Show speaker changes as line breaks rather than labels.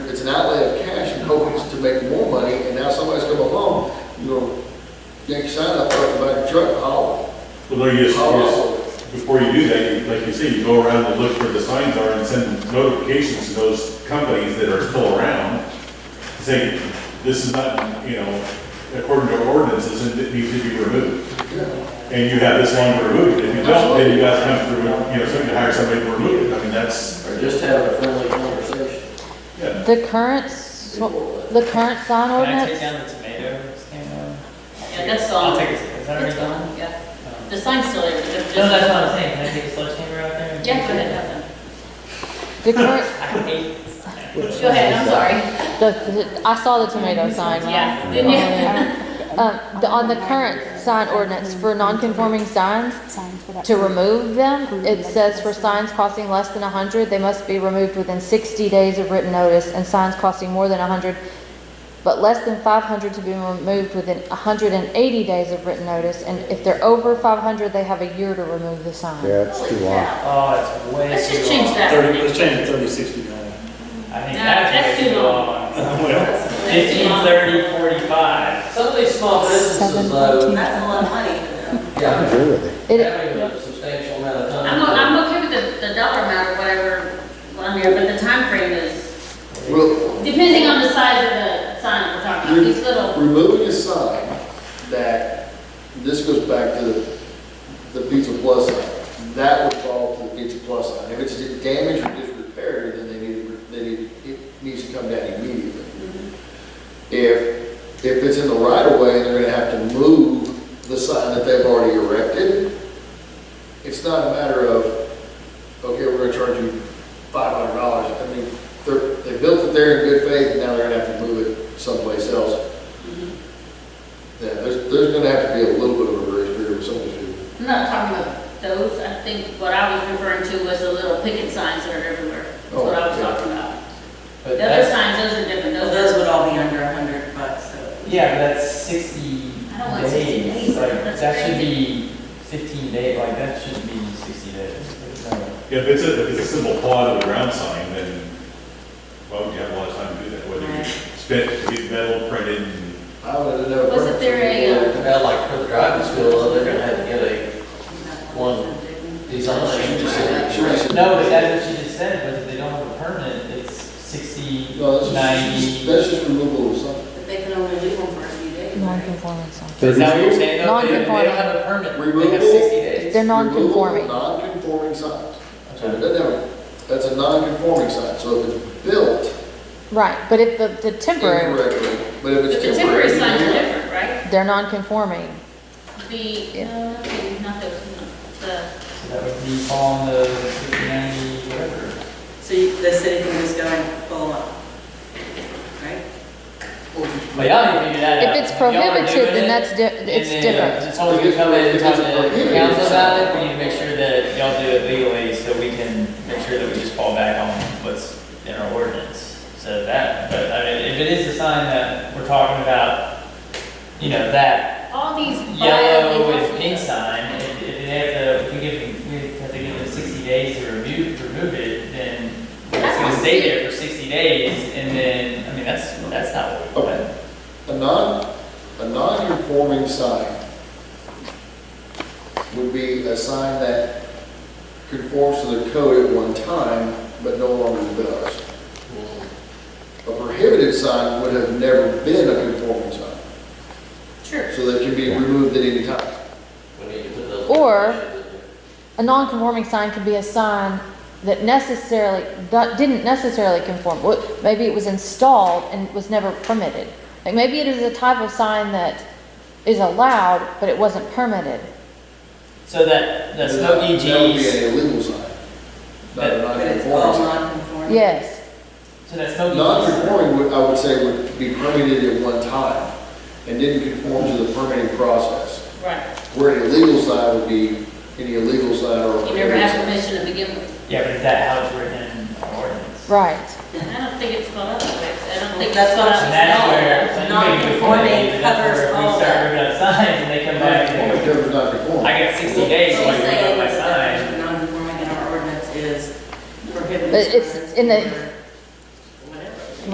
it's an outlay of cash and hoping to make more money, and now somebody's come along, you know, yank your sign up, put buy a truck, and haul
Well, no, you
it.
just, you just-
Oh.
before you do that, you, like you say, you go around and look where the signs are and send notifications to those companies that are still around. Saying, this is not, you know, according to ordinances, and it needs to be removed.
Yeah.
And you have this long to remove it. If you don't, then you guys have to, you know, somebody to hire somebody to remove it. I mean, that's,
Or just have a friendly conversation.
yeah.
The current, s- the current sign
Oh,
Can I take
ordinance,
down the tomato stand?
Yeah, that's all.
I'll take, it. is that already done?
Yeah,
No,
the sign's still there, but just.
that's what I'm saying, can I take a sledgehammer out there? and-
Yeah, go ahead, have
the current,
I hate.
them. Go ahead, I'm sorry.
the, the- I saw the tomato sign. when I
Yeah,
was
didn't you?
going in. Um, the- on the current sign ordinance for non-conforming signs, to remove them, it says for signs costing less than a hundred, they must be removed within sixty days of written notice, and signs costing more than a hundred, but less than five hundred to be removed within hundred and eighty days of written notice, and if they're over five hundred, they have a year to remove the sign.
Yeah, it's too
Holy
long.
cow.
Oh, it's way too long.
Let's just change that.
Thirty, let's change it to thirty, sixty nine.
I think
No,
that's
that's
way
too
too
long.
long.
Well,
That's too
Fifteen,
long.
thirty, forty-five.
Some of these small businesses, though,
That's a lot of money.
I
yeah,
agree with it.
It-
having a substantial amount of time.
I'm, o- I'm okay with the, the dollar amount or whatever on there, but the time frame is,
Well,
depending on the size of the sign that we're talking about, these little.
removing a sign that, this goes back to the Pizza Plus sign, that would fall to the Pizza Plus sign. If it's damaged or disrepaired, then they need, they need, it needs to come down immediately. If, if it's in the right of way, they're gonna have to move the sign that they've already erected. It's not a matter of, okay, we're gonna charge you five hundred dollars. I mean, they're, they built it there in good faith, and now they're gonna have to move it someplace else. Yeah, there's, there's gonna have to be a little bit of a grace period with some of these people.
I'm not talking about those, I think what I was referring to was the little picket signs that are everywhere, that's what I was
Oh, yeah.
talking about.
But
The other
that's,
signs, those are different, those are.
all be under a hundred bucks, so.
yeah, but that's sixty
I don't want 60
days.
days.
Like,
That's
that should
crazy.
be fifteen days, like, that should be sixty days. There's no-
If it's a, if it's a simple plot of the ground sign, then why would you have a lot of time to do that? Whether you
Right.
spent, to get metal printed and
I would never.
Wasn't there a,
About like for the driving school, they're gonna have to get a one design.
uh,
No, but that's what she just said, was if they don't have a permit, it's sixty,
No, that's just, that's
ninety.
just removal of something.
But they can only leave them for a few days.
Non-conforming sign.
Is that what you're saying, though? They they don't
Non-conforming.
have a permit, they
Removal.
have sixty days.
They're non-conforming.
Removal of Non-conforming signs. So it
Okay.
doesn't have, a- that's a non-conforming sign, so if it's built
Right, but if the, the temporary,
incorrectly, but if
But
it's
the
temporary.
temporary signs are
yeah.
different, right?
they're non-conforming.
The,
Yeah.
uh, not those, no, the,
So that would be on the sixty, ninety, whatever.
So you- the city can just go and pull them up, right?
But y'all need to figure that out.
If it's
y'all are doing
prohibited,
it,
then that's, di- it's
and then,
different.
uh, It's only we come in and talk to the
Prohibited.
council about it, we need to make sure that y'all do it legally, so we can make sure that we just fall back on what's in our ordinance. So that, but I mean, if it is a sign that we're talking about, you know, that
all these.
yellow
violent-
and pink sign, if, if they have to, if we give them, we have to give them sixty days to remove, to remove it, then it's gonna stay there for sixty days, and then, I mean, that's, that's not what we want.
A non, a non-conforming sign would be a sign that conforms to the code at one time, but no longer does. A prohibited sign would have never been a conforming sign,
Sure.
so that can be removed at any time.
We need to put those-
Or- A non-conforming sign could be a sign that necessarily, that didn't necessarily conform. Well, Maybe it was installed and was never permitted. Like, maybe it is a type of sign that is allowed, but it wasn't permitted.
So that, the smoky
That would be
E G's,
an illegal sign, not a
But-
non-conforming
But it's all
sign.
non-conforming.
Yes,
so that smoky E G's,
Non-conforming, would- I would say, would be permitted at one time and didn't conform to the permitting process.
Right,
Where an illegal sign would be any illegal sign or.
you never have permission to begin with.
yeah, but is that how it's written in our ordinance?
right.
I don't think it's spelled out that way, I don't think.
That's what
And that's where, so you make a good point,
Non-conforming
David, that's
covers
where we
all
start
that.
ripping up signs and they come back
It
and,
covers non-conforming.
I got sixty days, so I
She's
can rip up
saying
my
that
sign.
Non-conforming in our ordinance is prohibited.
But it's in the,